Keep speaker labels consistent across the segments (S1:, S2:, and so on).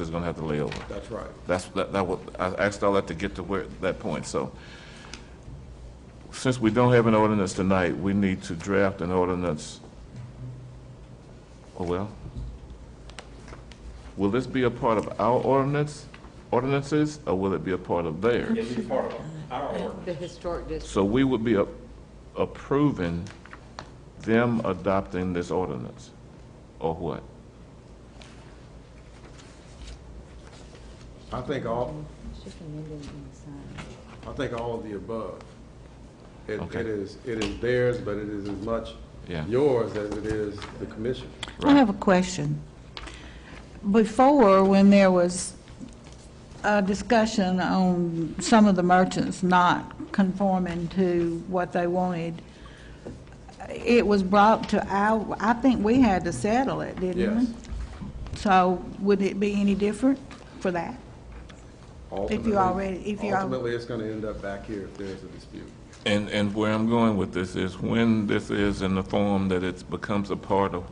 S1: is gonna have to lay over.
S2: That's right.
S1: That's, that, that was, I asked all that to get to where, that point, so. Since we don't have an ordinance tonight, we need to draft an ordinance. Oh, well. Will this be a part of our ordinance, ordinances, or will it be a part of theirs?
S2: It's part of our ordinance.
S3: The historic district,
S1: So we would be a- approving them adopting this ordinance, or what?
S2: I think all,
S3: it's just amended and signed.
S2: I think all of the above. It,
S1: Okay.
S2: it is, it is theirs, but it is as much
S1: Yeah.
S2: yours as it is the commission.
S4: I have a question. Before, when there was a discussion on some of the merchants not conforming to what they wanted, it was brought to our, I think we had to settle it, didn't we?
S2: Yes.
S4: So would it be any different for that?
S2: Ultimately-
S4: already- if you al-
S2: Ultimately, it's gonna end up back here if there's a dispute.
S1: And, and where I'm going with this is when this is in the form that it becomes a part of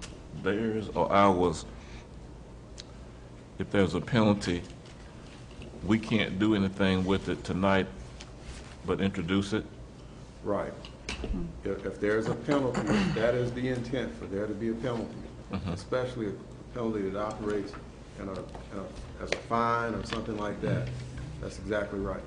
S1: theirs or ours, if there's a penalty, we can't do anything with it tonight but introduce it?
S2: Right.
S4: Hmm.
S2: If, if there's a penalty, that is the intent, for there to be a penalty,
S1: Mm-hmm.
S2: especially a penalty that operates in a, in a- as a fine or something like that. That's exactly right.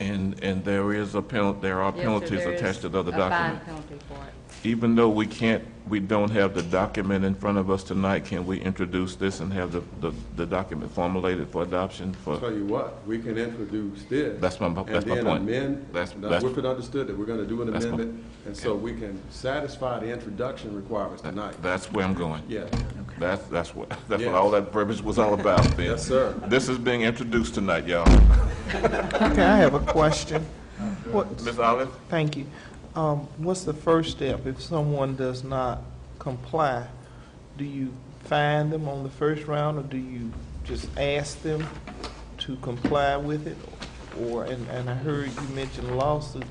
S1: And, and there is a penalty, there are
S3: Yes, sir,
S1: penalties
S3: there is
S1: attached to the other
S3: A fine
S1: document.
S3: penalty for it.
S1: Even though we can't, we don't have the document in front of us tonight, can we introduce this and have the, the, the document formulated for adoption for?
S2: Tell you what, we can introduce this.
S1: That's my- that's my
S2: And then
S1: point.
S2: amend,
S1: That's-
S2: now,
S1: that's-
S2: Whitford understood that we're gonna do an
S1: That's my-
S2: amendment, and so we can satisfy the introduction requirements tonight.
S1: That's where I'm going.
S2: Yeah,
S1: That's, that's what, that's what
S2: Yes.
S1: all that verbiage was all about, Ben.
S2: yes, sir.
S1: This is being introduced tonight, y'all.
S5: Okay, I have a question. What,
S1: Ms. Olive?
S5: thank you. Um, what's the first step? If someone does not comply, do you fine them on the first round, or do you just ask them to comply with it? Or, and, and I heard you mention lawsuit,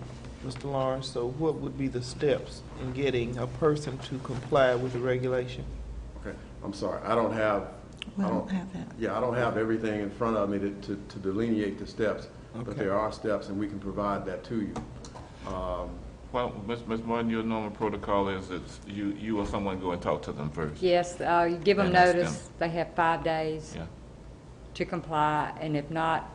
S5: Mr. Lawrence, so what would be the steps in getting a person to comply with the regulation?
S2: Okay, I'm sorry, I don't have,
S4: We
S2: I
S4: don't
S2: don't,
S4: have that.
S2: yeah, I don't have everything in front of me to, to to delineate the steps, but
S5: Okay.
S2: there are steps, and we can provide that to you. Um,
S1: Well, Ms. Ms. Martin, your normal protocol is it's you, you or someone go and talk to them first.
S3: Yes, uh, you give them
S1: And that's
S3: notice, they have five days
S1: Yeah.
S3: to comply, and if not,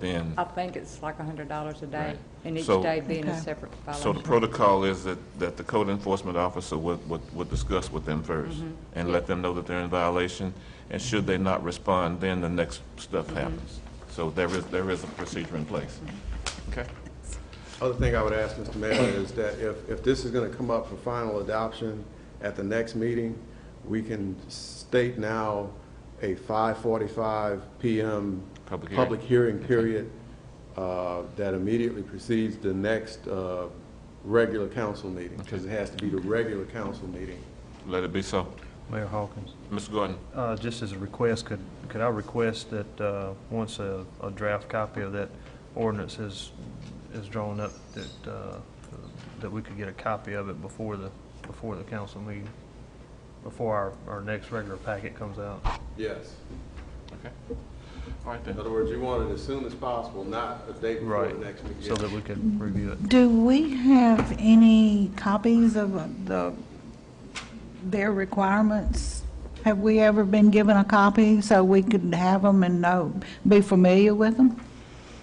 S1: Then,
S3: I think it's like a hundred dollars a day,
S1: Right.
S3: and each
S1: So-
S3: day being a
S4: Okay.
S3: separate
S1: so the
S3: violation.
S1: protocol is that, that the code enforcement officer would, would, would discuss with them first and let them know that they're in violation, and should they not respond, then the next stuff happens. So there is, there is a procedure in place. Okay?
S2: Other thing I would ask, Mr. Mayor, is that if, if this is going to come up for final adoption at the next meeting, we can state now a 5:45 PM.
S1: Public hearing.
S2: hearing period uh, that immediately precedes the next uh, regular council meeting, because it has to be the regular council meeting.
S1: Let it be so.
S6: Mayor Hawkins,
S1: Ms. Gordon?
S6: uh, just as a request, could, could I request that, uh, once a, a draft copy of that ordinance is, is drawn up, that, uh, that we could get a copy of it before the, before the council meeting, before our, our next regular packet comes out?
S2: Yes.
S1: Okay. All right then.
S2: In other words, you want it as soon as possible, not a day before
S6: Right,
S2: the next meeting.
S6: so that we could review it.
S4: Do we have any copies of uh, the, their requirements? Have we ever been given a copy so we could have them and know, be familiar with them?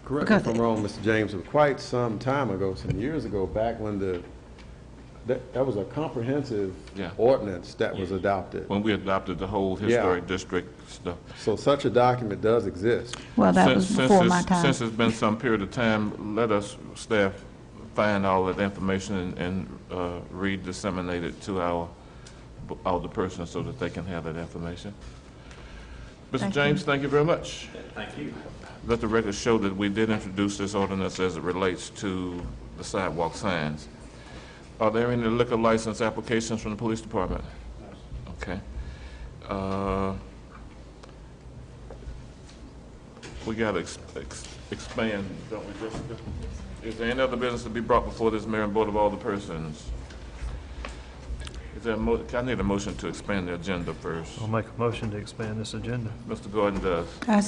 S2: Correct me if I'm
S4: Because-
S2: wrong, Mr. James, but quite some time ago, some years ago, back when the, that, that was a comprehensive
S1: Yeah.
S2: ordinance that was adopted.
S1: When we adopted the whole historic district stuff.
S2: So such a document does exist.
S4: Well, that
S1: Since-
S4: was
S1: since
S4: before my
S1: it's-
S4: time.
S1: Since it's been some period of time, let us, staff, find all that information and- and uh, re-disseminate it to our, all the persons so that they can have that information. Mr. James, thank you very much. Thank you. Let the record show that we did introduce this ordinance as it relates to the sidewalk signs. Are there any liquor license applications from the police department? Okay. Uh, We got to expand, don't we, Jessica? Is there any other business to be brought before this mayor and board of all the persons? Is there a mo, I need a motion to expand the agenda first.
S6: I'll make a motion to expand this agenda.
S1: Mr. Gordon does.
S4: I